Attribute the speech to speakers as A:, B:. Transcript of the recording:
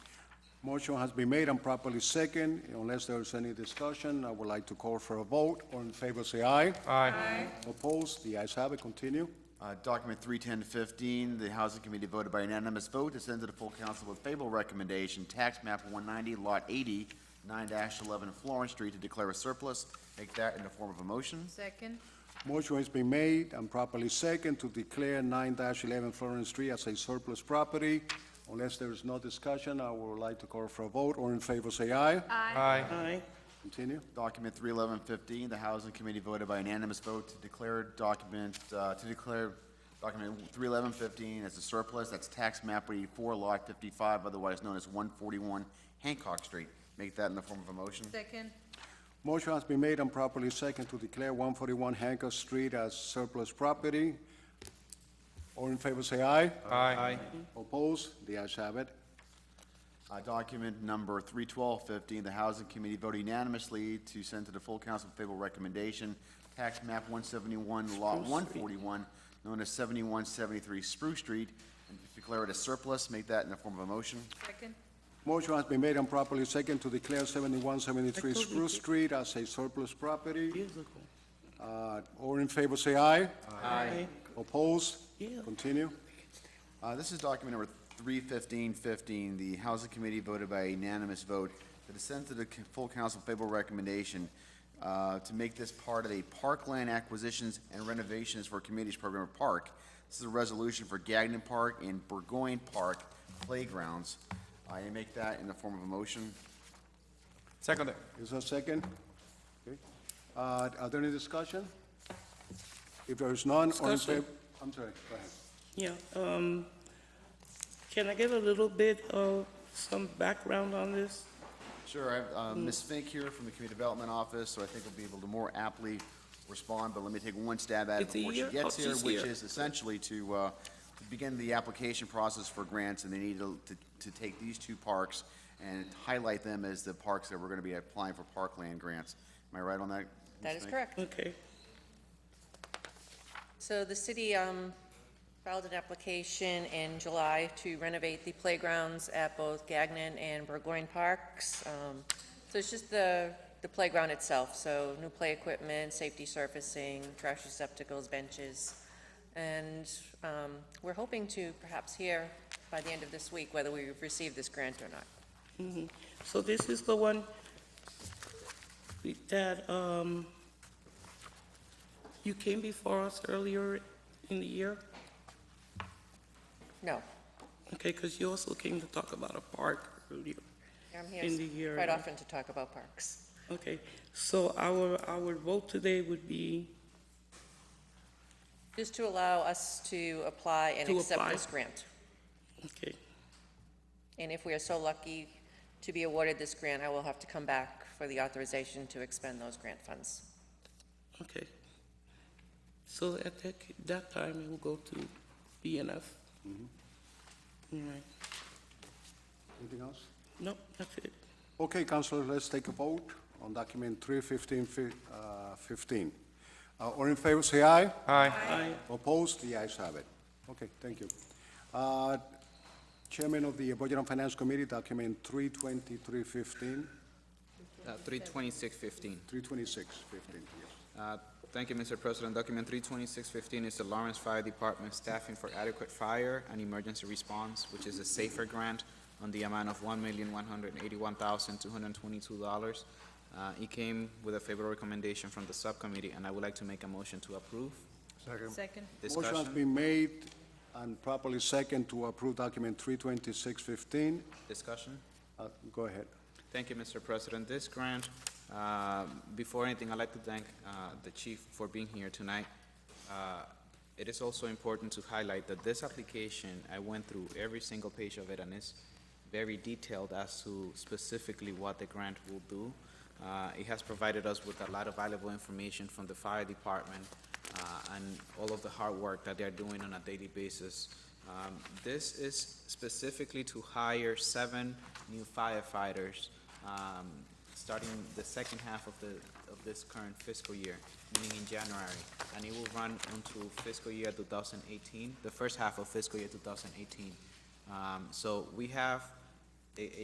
A: Motion has been made and properly second. Unless there's any discussion, I would like to call for a vote. All in favor, say aye.
B: Aye.
A: Opposed? The ayes have it. Continue.
C: Uh, Document 31015, the Housing Committee voted by unanimous vote to send to the full council with favorable recommendation, tax map 190, lot 80, 9-11 Florence Street, to declare a surplus. Take that in the form of a motion.
B: Second.
A: Motion has been made and properly second to declare nine eleven Florence Street as a surplus property. Unless there is no discussion, I would like to call for a vote. All in favor, say aye.
B: Aye.
A: Continue.
C: Document 31115, the Housing Committee voted by unanimous vote to declare document, uh, to declare document 31115 as a surplus. That's tax map 84, lot 55, otherwise known as 141 Hancock Street. Make that in the form of a motion.
B: Second.
A: Motion has been made and properly second to declare one forty-one Hancock Street as surplus property. All in favor, say aye.
D: Aye.
A: Opposed? The ayes have it.
C: Uh, Document number 31215, the Housing Committee voted unanimously to send to the full council favorable recommendation, tax map 171, lot 141, known as 7173 Spruce Street, and declare it a surplus. Make that in the form of a motion.
B: Second.
A: Motion has been made and properly second to declare seventy-one seventy-three Spruce Street as a surplus property. Uh, all in favor, say aye.
D: Aye.
A: Opposed? Continue.
C: Uh, This is document number 31515. The Housing Committee voted by unanimous vote to send to the c- full council favorable recommendation uh, to make this part of a parkland acquisitions and renovations for communities program of park. This is a resolution for Gagnon Park and Burgoyne Park playgrounds. I make that in the form of a motion.
D: Second.
A: Is there a second? Okay. Uh, are there any discussion? If there is none, all in
E: Discussion.
A: favor? I'm sorry, go ahead.
E: Yeah, um, can I get a little bit of some background on this?
C: Sure, I have uh,
F: Mm.
C: Ms. Fink here from the Community Development Office, so I think we'll be able to more aptly respond, but let me take one stab at it
E: It's a
C: before she
E: year?
C: gets
E: Oh,
C: here,
E: she's
C: which
E: here.
C: is essentially to uh, to begin the application process for grants, and they need to to- to take these two parks and highlight them as the parks that we're going to be applying for parkland grants. Am I right on that?
F: That
C: Ms.
F: is
C: Fink?
F: correct.
E: Okay,
F: So the city um, filed an application in July to renovate the playgrounds at both Gagnon and Burgoyne Parks. Um, So it's just the, the playground itself, so new play equipment, safety surfacing, trash receptacles, benches. And um, we're hoping to perhaps hear by the end of this week whether we've received this grant or not.
E: so this is the one that, um, you came before us earlier in the year?
F: No,
E: Okay, because you also came to talk about a park earlier.
F: I'm
E: In the year.
F: here quite often to talk about parks.
E: Okay, so our, our vote today would be,
F: Just to allow us to apply and
E: To
F: accept
E: apply.
F: this grant.
E: okay,
F: And if we are so lucky to be awarded this grant, I will have to come back for the authorization to expend those grant funds.
E: okay. So at that, that time, it will go to BNF? All right,
A: Anything else?
E: no, that's it.
A: Okay, councilors, let's take a vote on document three fifteen, uh, fifteen. Uh, all in favor, say aye.
D: Aye.
E: Aye.
A: Opposed? The ayes have it. Okay, thank you. Uh, Chairman of the Budget and Finance Committee, document three twenty-three fifteen,
G: Uh, 32615.
A: three twenty-six fifteen, yes.
G: Uh, Thank you, Mr. President. Document 32615 is the Lawrence Fire Department Staffing for Adequate Fire and Emergency Response, which is a SAFER grant on the amount of $1,181,222. Uh, It came with a favorable recommendation from the subcommittee, and I would like to make a motion to approve.
B: Second.
G: Discussion?
A: Motion has been made and properly second to approve document three twenty-six fifteen.
G: Discussion?
A: Uh, go ahead.
G: Thank you, Mr. President. This grant, uh, before anything, I'd like to thank uh, the chief for being here tonight. Uh, It is also important to highlight that this application, I went through every single page of it, and it's very detailed as to specifically what the grant will do. Uh, It has provided us with a lot of valuable information from the fire department uh, and all of the hard work that they're doing on a daily basis. Um, This is specifically to hire seven new firefighters, um, starting the second half of the, of this current fiscal year, meaning in January. And it will run until fiscal year two thousand Um, eighteen, the first half of fiscal year two thousand eighteen. So we have a, a